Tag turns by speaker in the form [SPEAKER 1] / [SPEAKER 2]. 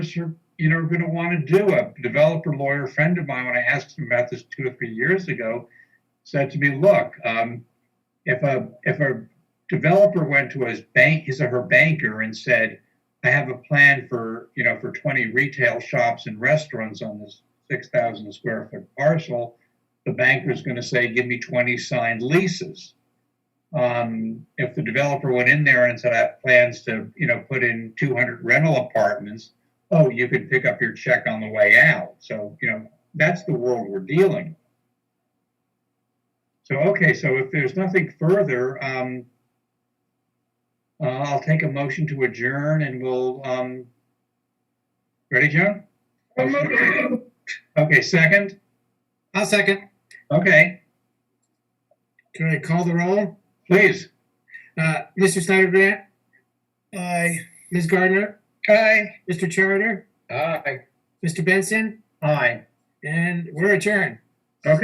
[SPEAKER 1] are, you know, going to want to do. A developer lawyer friend of mine, when I asked him about this two or three years ago, said to me, "Look, um, if a if a developer went to his bank, his or her banker, and said, I have a plan for you know for 20 retail shops and restaurants on this 6,000 square foot parcel," the banker's going to say, "Give me 20 signed leases." Um, if the developer went in there and said, "I have plans to you know put in 200 rental apartments," oh, you could pick up your check on the way out. So, you know, that's the world we're dealing. with. So, okay, so if there's nothing further, um, uh, I'll take a motion to adjourn and we'll, um, ready, Joan? Okay, second?
[SPEAKER 2] I'll second.
[SPEAKER 1] Okay,
[SPEAKER 2] Can I call the roll?
[SPEAKER 1] please.
[SPEAKER 2] Uh, Mr. Snyder Grant,
[SPEAKER 3] Aye.
[SPEAKER 2] Ms. Gardner,
[SPEAKER 1] Aye.
[SPEAKER 2] Mr. Charter,
[SPEAKER 1] Aye.
[SPEAKER 2] Mr. Benson,
[SPEAKER 1] Aye.
[SPEAKER 2] and we're adjourned.